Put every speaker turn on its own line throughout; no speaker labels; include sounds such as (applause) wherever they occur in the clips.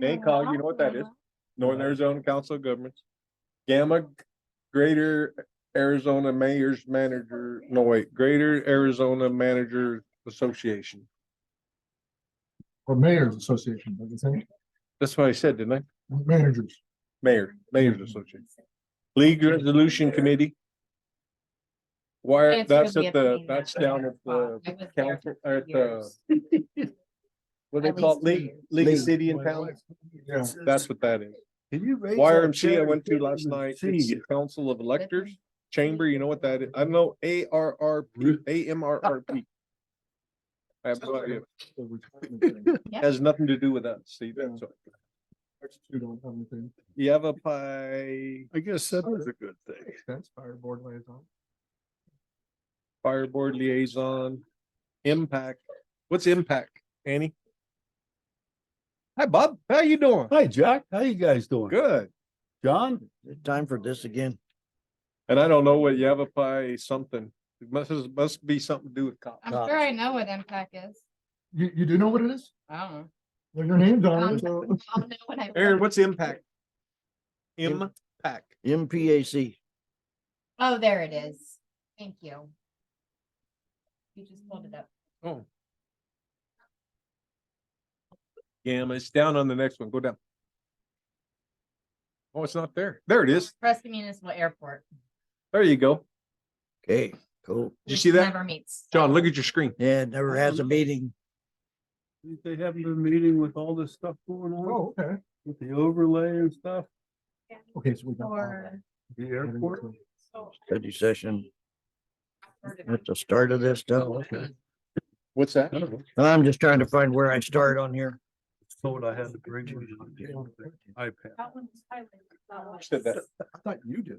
NACOG, you know what that is? Northern Arizona Council of Governments. Gamma, Greater Arizona Mayor's Manager, no wait, Greater Arizona Manager Association.
Or Mayor's Association, like you say,
That's what I said, didn't I?
managers.
Mayor, Mayor's Association. League Resolution Committee. Why,
It's
that's
really
at the,
amazing.
that's down at the
I was there
council, or at the,
years.
what do
At
they call
least
it?
three
League, League of City and Town?
Yeah,
That's what that is.
Can you raise?
YRMC I went to last night, it's the Council of Electors
Living.
Chamber, you know what that is? I know A R R P, A M R R P. I have no
(laughs)
idea.
the retirement (laughs) thing.
Has nothing to do with us, Steve.
Yeah.
So,
Next two don't have anything.
Yavapai
I guess that was a good thing.
That's fire board liaison.
Fire Board Liaison, Impact. What's Impact, Annie? Hi, Bob. How you doing?
Hi, Jack. How you guys doing?
Good.
John?
Time for this again.
And I don't know what Yavapai something, it must, must be something to do with cops.
I'm
Cops.
sure I know what MPAC is.
You, you do know what it is?
I don't know.
Well, your name's on
Um,
it, so.
I'll know when I
Aaron,
look.
what's Impact?
Im-
Impact.
MPAC.
Oh, there it is. Thank you. You just pulled it up.
Oh. Gamma, it's down on the next one, go down. Oh, it's not there, there it is,
Preston Municipal Airport.
there you go,
Okay, cool.
Did you
which
see that?
Never meets.
John, look at your screen.
Yeah, it never has a meeting.
They haven't been meeting with all this stuff going on
Oh, okay.
with the overlay and stuff,
Okay, so we got. all that.
Or.
the airport.
Study session at the start of this stuff.
Oh,
Okay.
What's that?
And I'm just trying to find where I start on here.
Thought I had to bring you the iPad.
Said that.
I thought you did.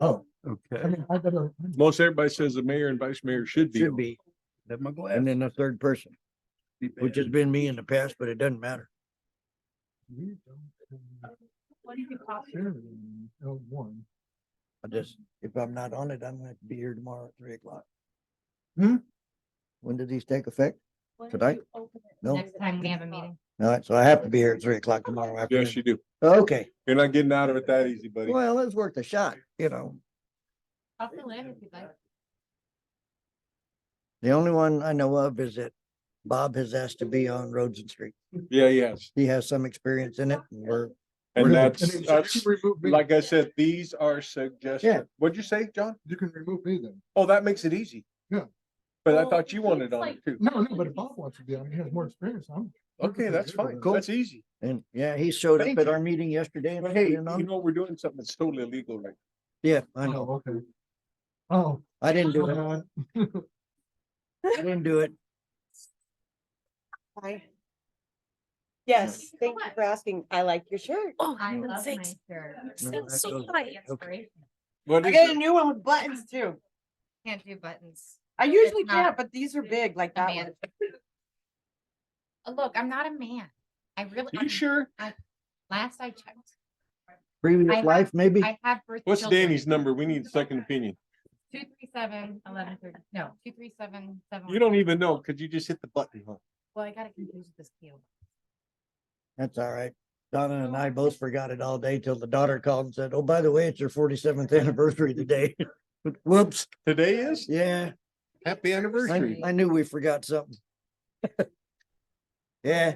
Oh, I
Okay.
mean, I better.
Most everybody says the mayor and vice mayor should be,
Should be,
Then my
and
glass.
then the third person, which has been me in the past, but it doesn't matter.
You don't share it in L one.
I just, if I'm not on it, I'm gonna have to be here tomorrow at three o'clock.
Hmm?
When do these take effect? Today? No,
Next time we have a meeting.
all right, so I have to be here at three o'clock tomorrow
yes,
afternoon.
you do,
Okay,
you're not getting out of it that easy, buddy.
well, it's worth a shot, you know.
I'll fill in if you'd like.
The only one I know of is that Bob has asked to be on Roads and Streets.
Yeah, yes,
He has some experience in it. and We're,
and
Remove-
that's,
then you
that's,
can remove me.
like I said, these are suggestions, what'd you say, John?
You can remove me then.
Oh, that makes it easy.
Yeah.
But I thought you wanted on it too,
No, no, but if Bob wants to be on, he has more experience, I'm.
okay, that's fine, that's easy.
and yeah, he showed up
Thank
at
you.
our meeting yesterday. and
But hey,
he
you
didn't on-
know, we're doing something that's totally illegal right
Yeah, I know.
Oh, okay. Oh.
I didn't do it.
God.
I didn't do it.
Hi. Yes, thank you for asking. I like your shirt.
Oh,
I
for
love my
sakes.
shirt.
No,
Sounds
that
so
goes-
funny.
Inspiration.
What
I
is
got a
it?
new one with buttons too.
Can't do buttons.
I usually
It's not-
can't, but these are big like
A
that one.
man. Uh, Look, I'm not a man. I really,
You
I'm-
sure?
last I checked, I
Previous
have-
life, maybe?
I have. birth
What's
children.
Danny's number? We need a second opinion.
Two, three, seven, eleven, thirty, no, two, three, seven, seven.
You don't even know, cause you just hit the button, huh?
Well, I got it confused with this deal.
That's all right. Donna and I both forgot it all day till the daughter called and said, oh, by the way, it's your forty-seventh (laughs) anniversary today. (laughs) Whoops,
Today is
yeah,
happy
I,
anniversary.
I knew we forgot something. (laughs) Yeah,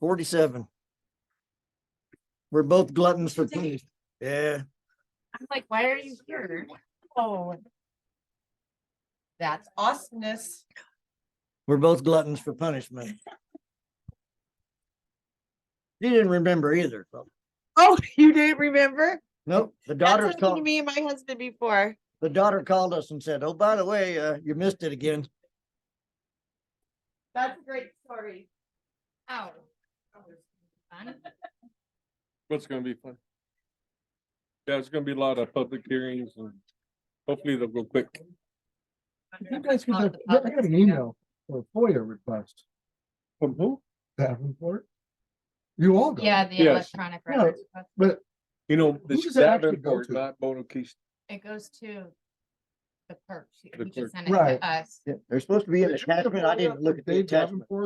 forty-seven. We're both gluttons for punishment. Yeah.
I'm like, why are you here?
Oh,
That's
awesomeness.
We're both gluttons for punishment. She didn't remember either. so-
Oh, (laughs) you didn't remember?
Nope, the
That's
daughter
happened to
called,
me and my husband before.
the daughter called us and said, oh, by the way, uh, you missed it again.
That's a great story.
ow. Fun.
What's gonna be fun? Yeah, it's gonna be a lot of public hearings and hopefully they'll go quick.
You guys can
Out
have,
the
I
public,
got an
you know?
email for a FOIA request,
From who?
Davenport. You all got. it.
Yeah, the
Yes.
electronic
Yeah.
records, but
You know,
Who
this
does it actually go
Davenport,
to?
not Bono Keys.
it goes to the clerk. She-
The
he
clerk.
just sent it to
Right.
us.
Yeah, They're supposed to be in
Did
the
you get a
attachment. I
FOIA
didn't
for
look at the
Dave
attachment.
Davenport?